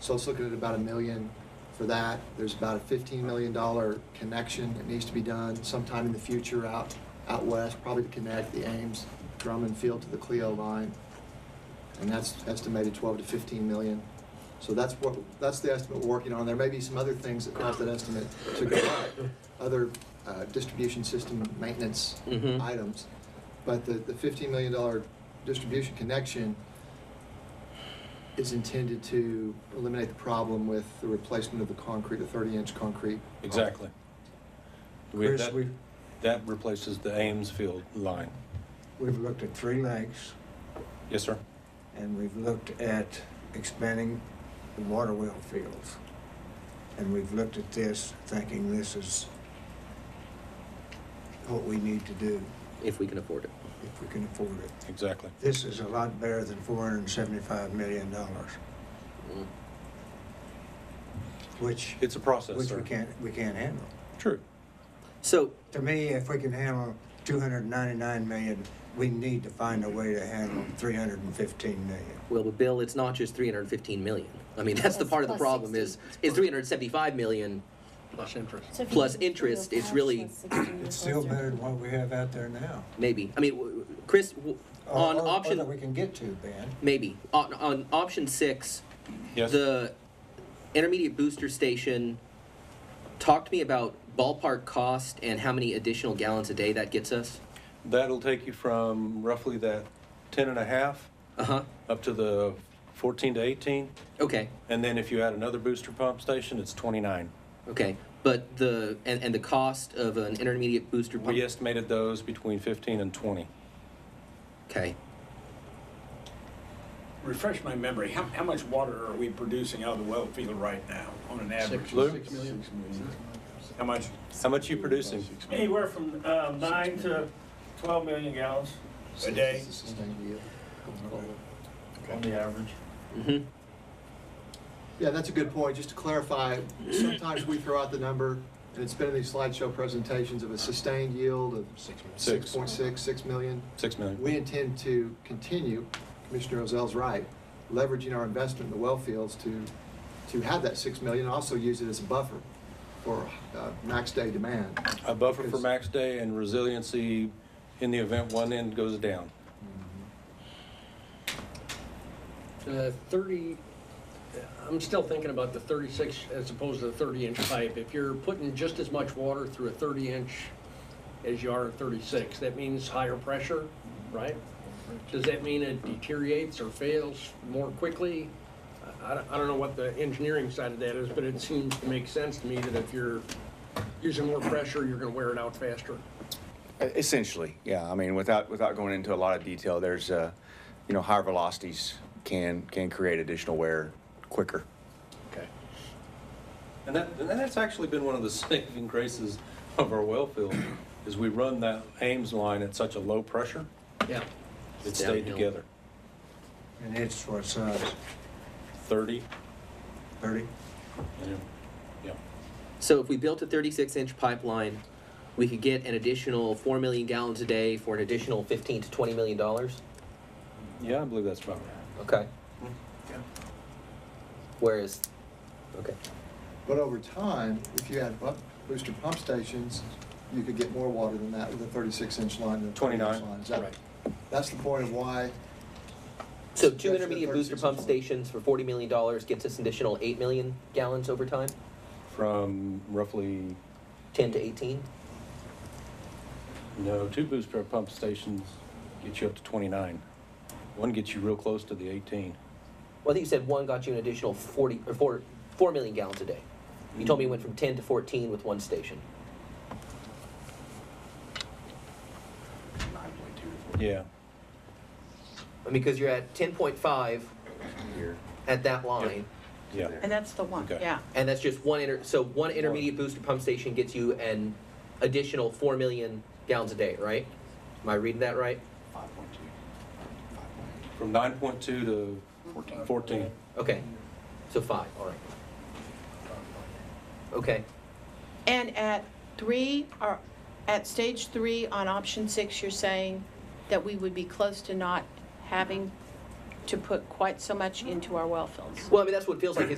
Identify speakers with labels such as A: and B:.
A: So it's looking at about a million for that. There's about a fifteen million dollar connection that needs to be done sometime in the future out, out west, probably to connect the Ames Drummond Field to the Clio line. And that's estimated twelve to fifteen million. So that's what, that's the estimate we're working on. There may be some other things that cause that estimate to go up, other uh, distribution system maintenance
B: Mhm.
A: items. But the, the fifteen million dollar distribution connection is intended to eliminate the problem with the replacement of the concrete, the thirty-inch concrete.
C: Exactly. We-
D: Chris,
C: that-
D: we've,
C: That replaces the Ames Field line.
D: we've looked at Three Lakes
C: Yes, sir.
D: and we've looked at expanding the water well fields. And we've looked at this thinking this is what we need to do
B: if we can afford it.
D: if we can afford it.
C: Exactly.
D: This is a lot better than four hundred and seventy-five million dollars,
B: Mm.
D: which,
C: It's a process,
D: which
C: sir.
D: we can't, we can't handle.
C: True.
B: So,
D: To me, if we can handle two hundred and ninety-nine million, we need to find a way to handle three hundred and fifteen million.
B: well, but Bill, it's not just 315 million. I mean, that's the
E: That's
B: part of the
E: plus
B: problem is,
E: 60.
B: is 375 million.
F: Plus interest.
E: So if you
B: Plus
E: do a
B: interest, it's
E: cash,
B: really-
E: that's 16
D: It's still
E: closer.
D: better than what we have out there now.
B: Maybe. I mean, w- w- Chris, w-
D: Or-
F: Oh,
B: on
D: or- or
B: option
D: that we can get to, Ben.
B: maybe on, on option six,
C: Yes.
B: the intermediate booster station. Talk to me about ballpark cost and how many additional gallons a day that gets us.
C: That'll take you from roughly that 10 and a half
B: Uh huh.
C: up to the 14 to 18.
B: Okay.
C: And then if you add another booster pump station, it's 29.
B: Okay. But the and, and the cost of an intermediate booster pump.
C: We estimated those between 15 and 20.
B: Okay.
G: Refresh my memory, how, how much water are we producing out of the well field right now on an average?
F: Six
C: Lou?
F: six million.
G: Six million. How much?
C: How much are you producing?
H: Anywhere from uh, nine to 12 million gallons
G: A day?
A: It's a sustained yield going forward.
H: on the average.
B: Mm-hmm.
A: Yeah, that's a good point. Just to clarify, sometimes we throw out the number, and it's been in these slideshow presentations of a sustained yield of six
C: Six.
A: point six, six million.
C: 6 million.
A: We intend to continue, Commissioner Ozell's right, leveraging our investment in the well fields to, to have that six million and also use it as a buffer for uh, max day demand.
C: A buffer for
A: Because-
C: max day and resiliency in the event one end goes down.
F: The thirty, I'm still thinking about the thirty-six as opposed to the thirty-inch pipe. If you're putting just as much water through a thirty-inch as you are a thirty-six, that means higher pressure, right? Does that mean it deteriorates or fails more quickly? I, I don't- I don't know what the engineering side of that is, but it seems to make sense to me that if you're using more pressure, you're gonna wear it out faster.
I: Essentially, yeah. I mean, without, without going into a lot of detail, there's, uh, you know, higher velocities can, can create additional wear quicker.
F: Okay.
C: And that, and that's actually been one of the saving graces of our well field, is we run that Ames line at such a low pressure,
F: Yeah.
C: it stayed
B: Downhill.
C: together.
D: And it's what size,
C: Thirty,
D: thirty?
C: yeah, yeah.
B: So if we built a 36 inch pipeline, we could get an additional 4 million gallons a day for an additional 15 to 20 million dollars.
C: Yeah, I believe that's about right.
B: Okay.
A: Mm-hmm.
B: Whereas, okay.
A: But over time, if you add bu- booster pump stations, you could get more water than that with a thirty-six inch line than a
C: 29.
A: twenty-inch line. Is that-
F: Right.
A: That's the point of why
B: So
A: That's the
B: two intermediate booster
A: 36 inch
B: pump
A: one.
B: stations for 40 million dollars gets us an additional 8 million gallons over time,
C: From roughly,
B: 10 to 18.
C: no, two booster pump stations get you up to twenty-nine. One gets you real close to the eighteen.
B: Well, I think you said one got you an additional 40 or 4 4 million gallons a day. You told me it went from 10 to 14 with one station.
C: Yeah,
B: I mean, because you're at 10.5
C: here,
B: at that line.
C: yeah.
J: And that's the one,
C: Okay.
J: yeah.
B: And that's just one inter, so one intermediate booster pump station gets you an additional four million gallons a day, right? Am I reading that right?
C: From nine point two to fourteen.
B: Okay, so five, all right. Okay,
J: And at three, or at stage three on option six, you're saying that we would be close to not having to put quite so much into our well fields?
B: well, I mean, that's what it feels like, It's